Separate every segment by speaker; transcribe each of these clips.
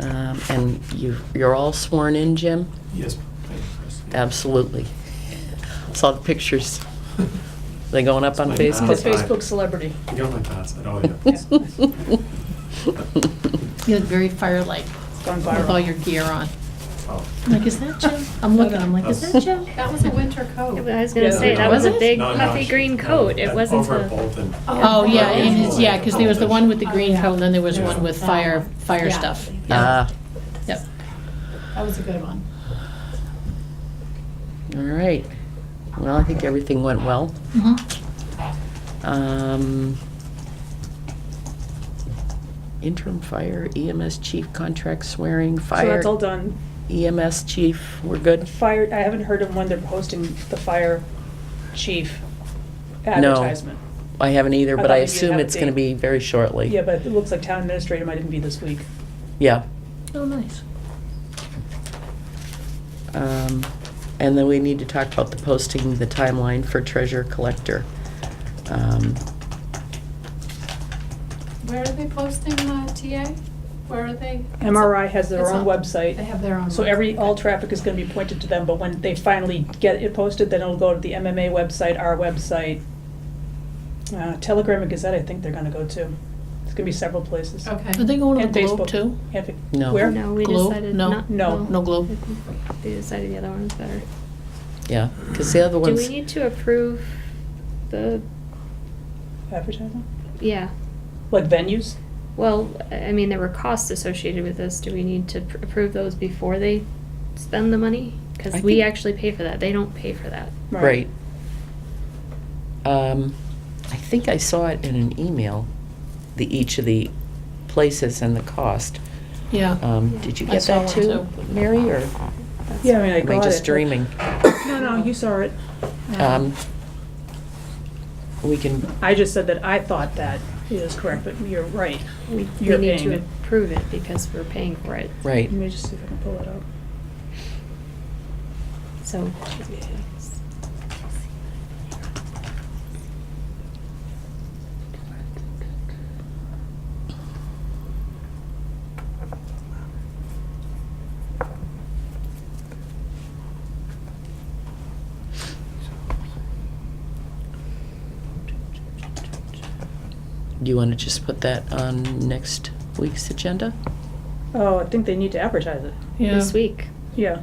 Speaker 1: Um, And you, you're all sworn in, Jim?
Speaker 2: Yes. thank you, Chris.
Speaker 1: Absolutely. Saw the pictures. They going up on
Speaker 2: It's my
Speaker 3: He's a
Speaker 1: Facebook?
Speaker 2: mom.
Speaker 3: Facebook celebrity.
Speaker 2: You got my password, oh, yeah.
Speaker 4: You look very fire-like
Speaker 3: It's gone
Speaker 4: with all
Speaker 3: viral.
Speaker 4: your gear on. Oh.
Speaker 2: Oh.
Speaker 4: I'm like, is that Jim? I'm looking, I'm like, is that Jim?
Speaker 5: That was a winter
Speaker 6: I
Speaker 5: coat.
Speaker 6: was gonna
Speaker 3: Yeah.
Speaker 6: say that was a
Speaker 4: Was it?
Speaker 6: big
Speaker 2: No, no,
Speaker 6: puffy
Speaker 2: she-
Speaker 6: green
Speaker 2: no,
Speaker 6: coat. It
Speaker 2: that-
Speaker 6: wasn't
Speaker 2: Over at
Speaker 6: a.
Speaker 2: Bolton.
Speaker 4: Oh, yeah, and it's, yeah, because there was the one with the green
Speaker 5: Oh, Yeah.
Speaker 4: coat, and then there was
Speaker 2: Yeah.
Speaker 4: one with fire, fire stuff.
Speaker 1: Ah,
Speaker 4: Yep.
Speaker 5: That was a good one.
Speaker 1: Uh, all right. Well, I think everything went well.
Speaker 4: Mhm.
Speaker 3: Mm-hmm.
Speaker 1: Um, Interim fire EMS chief contract swearing,
Speaker 3: So
Speaker 1: fire
Speaker 3: that's all done.
Speaker 1: EMS chief, we're good?
Speaker 3: Fire, I haven't heard of when they're posting the fire chief
Speaker 1: No.
Speaker 3: advertisement.
Speaker 1: I haven't either,
Speaker 3: I
Speaker 1: but
Speaker 3: thought
Speaker 1: I
Speaker 3: maybe you'd
Speaker 1: assume
Speaker 3: have a
Speaker 1: it's gonna
Speaker 3: date.
Speaker 1: be very shortly.
Speaker 3: Yeah, but it looks like town administrator might even be this week.
Speaker 1: Yeah.
Speaker 4: Oh, nice.
Speaker 1: Um, And then we need to talk about the posting, the timeline for treasure collector. Um,
Speaker 5: Where are they posting uh, TA? Where are they?
Speaker 3: MRI has their
Speaker 5: It's
Speaker 3: own
Speaker 5: on- They
Speaker 3: website,
Speaker 5: have their own.
Speaker 3: so every,
Speaker 5: website.
Speaker 3: all traffic is gonna be pointed to them, but when they finally get it posted, then it'll go to the MMA website, our website. Uh, Telegram and Gazette, I think they're gonna go to. It's gonna be several places.
Speaker 4: Are they
Speaker 5: Okay.
Speaker 4: going to
Speaker 3: And
Speaker 4: the Globe
Speaker 3: Facebook
Speaker 4: too?
Speaker 3: And fa-
Speaker 1: No.
Speaker 3: Where?
Speaker 6: No, we
Speaker 4: Globe?
Speaker 6: decided
Speaker 4: No.
Speaker 6: not.
Speaker 3: No.
Speaker 4: No Globe.
Speaker 6: They decided the other one was better.
Speaker 1: Yeah, because the other
Speaker 6: Do
Speaker 1: ones,
Speaker 6: we need to approve the,
Speaker 3: Advertising?
Speaker 6: yeah,
Speaker 3: Like venues?
Speaker 6: well, I mean, there were costs associated with this. Do we need to pr- approve those before they spend the money?
Speaker 1: I
Speaker 6: Because we
Speaker 1: think-
Speaker 6: actually pay for that. They don't pay for that.
Speaker 1: right. Um, I think I saw it in an email, the, each of the places and the cost.
Speaker 4: Yeah.
Speaker 1: Um, Did you
Speaker 4: I
Speaker 1: get
Speaker 4: saw
Speaker 1: that
Speaker 4: one
Speaker 1: too,
Speaker 4: too.
Speaker 1: Mary, or
Speaker 6: That's-
Speaker 3: Yeah, I mean, I
Speaker 1: am I
Speaker 3: got
Speaker 1: just
Speaker 3: it.
Speaker 1: dreaming?
Speaker 3: No, no, you saw it.
Speaker 1: Um, We can,
Speaker 3: I just said that I thought that is correct, but you're right.
Speaker 6: We, we
Speaker 3: You're
Speaker 6: need
Speaker 3: paying
Speaker 6: to
Speaker 3: it.
Speaker 6: approve it because we're paying for it.
Speaker 1: right,
Speaker 3: Let me just see if I can pull it up.
Speaker 6: So.
Speaker 1: do you want to just put that on next week's agenda?
Speaker 3: Oh, I think they need to advertise it.
Speaker 4: Yeah.
Speaker 6: This week,
Speaker 3: Yeah.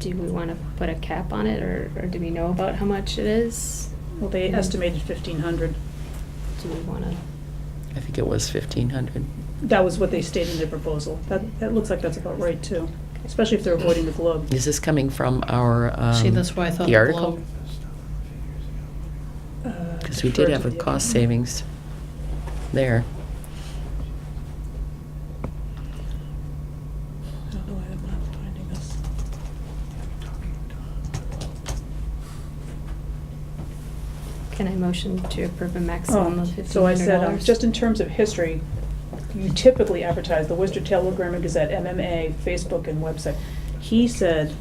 Speaker 6: do we want to put a cap on it or, or do we know about how much it is?
Speaker 3: Well, they estimated fifteen hundred.
Speaker 6: Do we want to?
Speaker 1: I think it was 1,500.
Speaker 3: That was what they stated in their proposal. That, that looks like that's about right too, especially if they're avoiding the globe.
Speaker 1: Is this coming from our, um,
Speaker 4: See, that's why I thought
Speaker 1: the
Speaker 4: the
Speaker 1: article?
Speaker 4: Globe.
Speaker 3: Uh,
Speaker 1: Because we did have a cost savings there.
Speaker 3: Oh, I don't know why I'm not finding this.
Speaker 6: Can I motion to approve a maximum of
Speaker 3: Oh,
Speaker 6: fifteen
Speaker 3: so I
Speaker 6: hundred
Speaker 3: said, um,
Speaker 6: dollars?
Speaker 3: just in terms of history, you typically advertise the Worcester Telegram and Gazette, MMA, Facebook, and website. He said,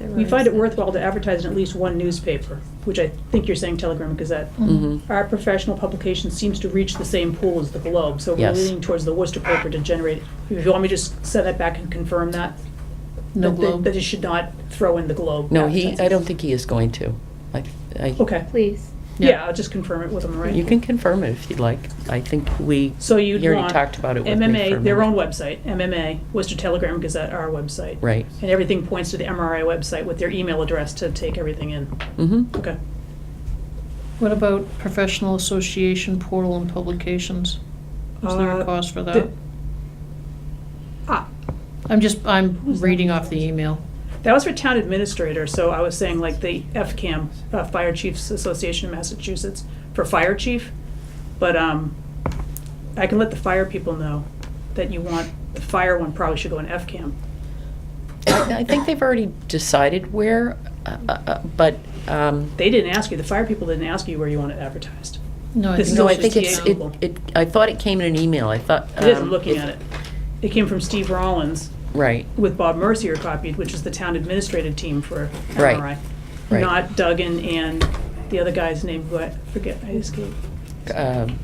Speaker 3: we find it worthwhile to advertise in at least one newspaper, which I think you're saying Telegram and Gazette.
Speaker 1: Mhm.
Speaker 3: Our professional publication seems to reach the same pool as the Globe, so we're
Speaker 1: Yes.
Speaker 3: leaning towards the Worcester paper to generate. If you want me to just send that back and confirm that? That-
Speaker 4: No
Speaker 3: that-
Speaker 4: Globe.
Speaker 3: That it should not throw in the Globe.
Speaker 1: No, he, I
Speaker 3: advertisements.
Speaker 1: don't think he is going to. I- I-
Speaker 3: Okay,
Speaker 6: Please.
Speaker 4: Yeah.
Speaker 3: yeah, I'll just confirm it with him, right?
Speaker 1: You can confirm it if you'd like. I think we,
Speaker 3: So you'd
Speaker 1: You already
Speaker 3: want
Speaker 1: talked about it with me for a
Speaker 3: MMA, their
Speaker 1: minute.
Speaker 3: own website, MMA, Worcester Telegram Gazette, our website.
Speaker 1: right.
Speaker 3: And everything points to the MRI website with their email address to take everything in.
Speaker 1: Mm-hmm.
Speaker 3: Okay.
Speaker 4: What about professional association portal and publications? Is there a
Speaker 3: Uh,
Speaker 4: cost for that?
Speaker 3: the- Ah,
Speaker 4: I'm just, I'm
Speaker 3: Who's that?
Speaker 4: reading off the email.
Speaker 3: that was for town administrator, so I was saying like the FCAM, uh, Fire Chiefs Association of Massachusetts, for fire chief. But, um, I can let the fire people know that you want, the fire one probably should go in FCAM.
Speaker 1: I I think they've already decided where, uh, uh, uh, but, um,
Speaker 3: They didn't ask you, the fire people didn't ask you where you want it advertised.
Speaker 4: No, I
Speaker 3: This
Speaker 4: think
Speaker 3: is
Speaker 1: no, I
Speaker 3: also
Speaker 4: it's
Speaker 1: think it's,
Speaker 4: just the
Speaker 1: it,
Speaker 3: downloadable.
Speaker 1: it, I thought it came in an email. I thought.
Speaker 3: It is, I'm
Speaker 1: um,
Speaker 3: looking at it. It came from Steve Rollins
Speaker 1: Right,
Speaker 3: with Bob Mercier copied, which is the town administrative team for
Speaker 1: Right,
Speaker 3: MRI.
Speaker 1: right.
Speaker 3: Not Duggan and the other guy's name, who I forget, I escaped.
Speaker 1: um,